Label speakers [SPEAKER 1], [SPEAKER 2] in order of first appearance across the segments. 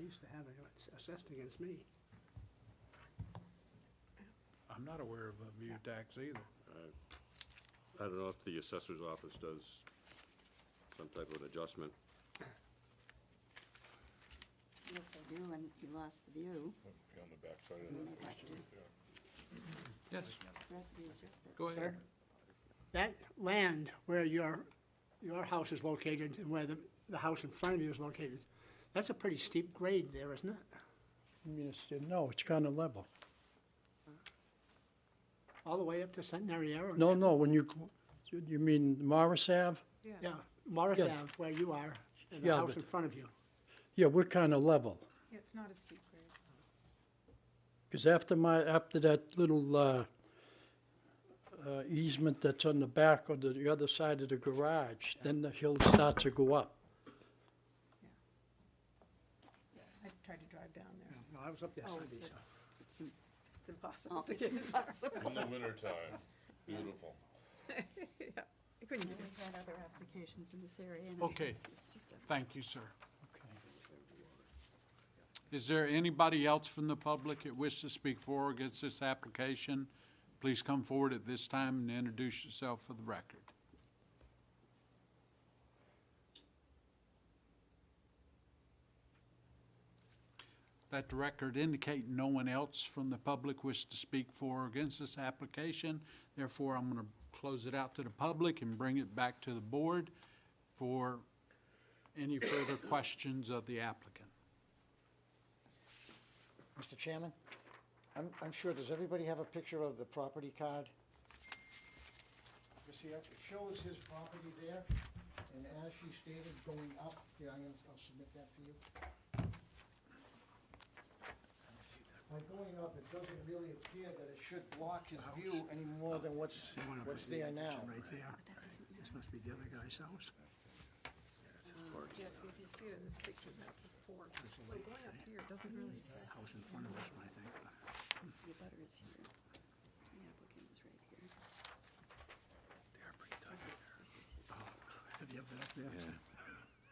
[SPEAKER 1] used to have it assessed against me.
[SPEAKER 2] I'm not aware of a view tax either.
[SPEAKER 3] I don't know if the assessor's office does some type of an adjustment.
[SPEAKER 4] If they do, and you lost the view,
[SPEAKER 5] Be on the backside
[SPEAKER 4] you
[SPEAKER 5] of
[SPEAKER 4] may
[SPEAKER 5] that.
[SPEAKER 4] have to,
[SPEAKER 2] Yes,
[SPEAKER 4] is that readjusted?
[SPEAKER 1] Oh,
[SPEAKER 2] go ahead.
[SPEAKER 1] That land where your, your house is located and where the, the house in front of you is located, that's a pretty steep grade there, isn't it?
[SPEAKER 6] I mean, it's, no, it's kind of level.
[SPEAKER 1] All the way up to Centenary Arrow?
[SPEAKER 6] No, no, when you, you mean Morris Ave?
[SPEAKER 1] Yeah, Morris
[SPEAKER 6] Yeah.
[SPEAKER 1] Ave, where you are, and the
[SPEAKER 6] Yeah,
[SPEAKER 1] house
[SPEAKER 6] but-
[SPEAKER 1] in front of you.
[SPEAKER 6] Yeah, we're kind of level.
[SPEAKER 7] Yeah, It's not a steep grade.
[SPEAKER 6] Because after my, after that little uh, uh, easement that's on the back or the the other side of the garage, then the hill starts to go up.
[SPEAKER 7] I tried to drive down there.
[SPEAKER 1] No, I was up there
[SPEAKER 4] Oh,
[SPEAKER 1] Sunday,
[SPEAKER 4] it's a-
[SPEAKER 1] so.
[SPEAKER 4] It's im-
[SPEAKER 7] It's impossible
[SPEAKER 4] oh,
[SPEAKER 7] to
[SPEAKER 4] it's
[SPEAKER 7] do.
[SPEAKER 4] impossible.
[SPEAKER 5] In the wintertime, beautiful.
[SPEAKER 7] I couldn't do
[SPEAKER 4] We've had other applications in this area, and
[SPEAKER 2] Okay.
[SPEAKER 4] it's just a
[SPEAKER 2] Thank you, sir. Is there anybody else from the public that wishes to speak for or against this application? Please come forward at this time and introduce yourself for the record. Let the record indicate no one else from the public wished to speak for or against this application. Therefore, I'm going to close it out to the public and bring it back to the board for any further questions of the applicant.
[SPEAKER 8] Mr. Chairman, I'm, I'm sure, does everybody have a picture of the property card? You see, it shows his property there, and as she stated, going up, here, I'm gonna, I'll submit that to you. By going up, it doesn't really appear that it should block his view any more than what's,
[SPEAKER 1] The one over
[SPEAKER 8] what's
[SPEAKER 1] here,
[SPEAKER 8] there
[SPEAKER 1] it's
[SPEAKER 8] now.
[SPEAKER 1] Right there. This must be the other guy's house.
[SPEAKER 7] it. Yes, if you see it in this picture, that's a fork. So going up here doesn't really,
[SPEAKER 1] That house in front of us, I think.
[SPEAKER 4] The butter is here. The applicant is right here.
[SPEAKER 1] They are pretty tight.
[SPEAKER 4] This is, this is his.
[SPEAKER 1] Have you ever been up there? Sam?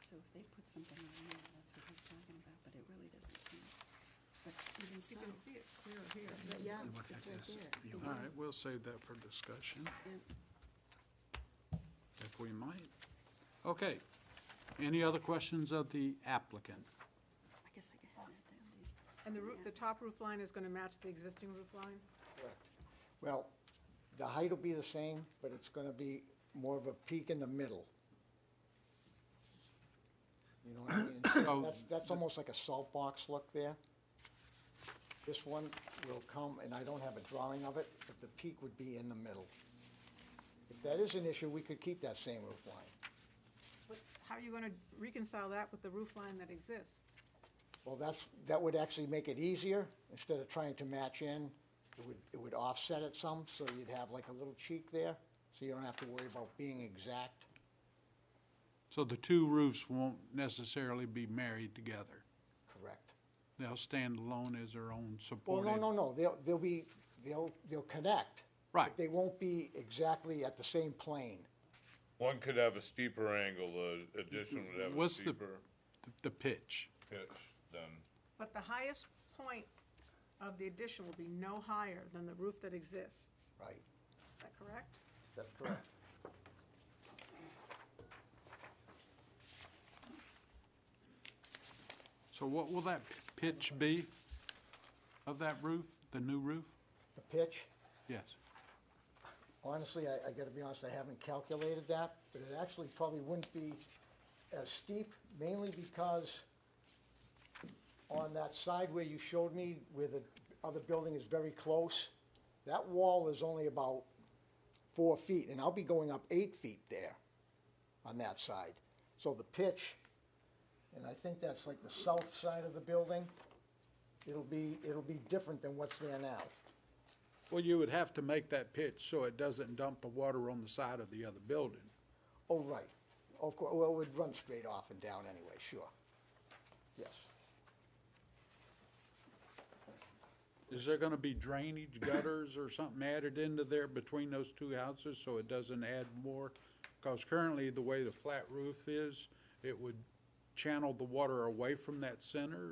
[SPEAKER 4] So if they put something on there, that's what he's talking about, but it really doesn't seem, but even
[SPEAKER 7] you
[SPEAKER 4] so,
[SPEAKER 7] can see it clear here.
[SPEAKER 4] it's right, yeah,
[SPEAKER 1] look
[SPEAKER 4] it's
[SPEAKER 1] at
[SPEAKER 4] right
[SPEAKER 1] this
[SPEAKER 4] there.
[SPEAKER 1] view.
[SPEAKER 4] The
[SPEAKER 2] All
[SPEAKER 4] one-
[SPEAKER 2] right, we'll save that for discussion,
[SPEAKER 4] yeah.
[SPEAKER 2] if we might. Okay. Any other questions of the applicant?
[SPEAKER 4] I guess I can have that down there.
[SPEAKER 7] And the roof, the top roof line is gonna match the existing roof line?
[SPEAKER 8] Correct. Well, the height will be the same, but it's gonna be more of a peak in the middle. You know what I mean?
[SPEAKER 2] So-
[SPEAKER 8] That's, that's almost like a salt box look there. This one will come, and I don't have a drawing of it, but the peak would be in the middle. If that is an issue, we could keep that same roof line.
[SPEAKER 7] What, how are you gonna reconcile that with the roof line that exists?
[SPEAKER 8] Well, that's, that would actually make it easier, instead of trying to match in, it would, it would offset it some, so you'd have like a little cheek there, so you don't have to worry about being exact.
[SPEAKER 2] So the two roofs won't necessarily be married together.
[SPEAKER 8] Correct.
[SPEAKER 2] They'll stand alone as their own
[SPEAKER 8] Well,
[SPEAKER 2] supported.
[SPEAKER 8] no, no, no, they'll, they'll be, they'll, they'll connect. but
[SPEAKER 2] Right.
[SPEAKER 8] They won't be exactly at the same plane.
[SPEAKER 5] One could have a steeper angle, the addition would have a
[SPEAKER 2] What's the,
[SPEAKER 5] steeper
[SPEAKER 2] the pitch?
[SPEAKER 5] pitch than,
[SPEAKER 7] But the highest point of the addition will be no higher than the roof that exists.
[SPEAKER 8] Right.
[SPEAKER 7] Is that correct?
[SPEAKER 8] That's correct.
[SPEAKER 2] So what will that pitch be of that roof, the new roof?
[SPEAKER 8] The pitch,
[SPEAKER 2] Yes.
[SPEAKER 8] honestly, I, I gotta be honest, I haven't calculated that, but it actually probably wouldn't be as steep, mainly because on that side where you showed me, where the other building is very close, that wall is only about four feet, and I'll be going up eight feet there on that side. So the pitch, and I think that's like the south side of the building, it'll be, it'll be different than what's there now.
[SPEAKER 2] Well, you would have to make that pitch so it doesn't dump the water on the side of the other building.
[SPEAKER 8] Oh, right. Of course, well, it would run straight off and down anyway, sure. Yes.
[SPEAKER 2] Is there gonna be drainage gutters or something added into there between those two houses so it doesn't add more? Because currently, the way the flat roof is, it would channel the water away from that center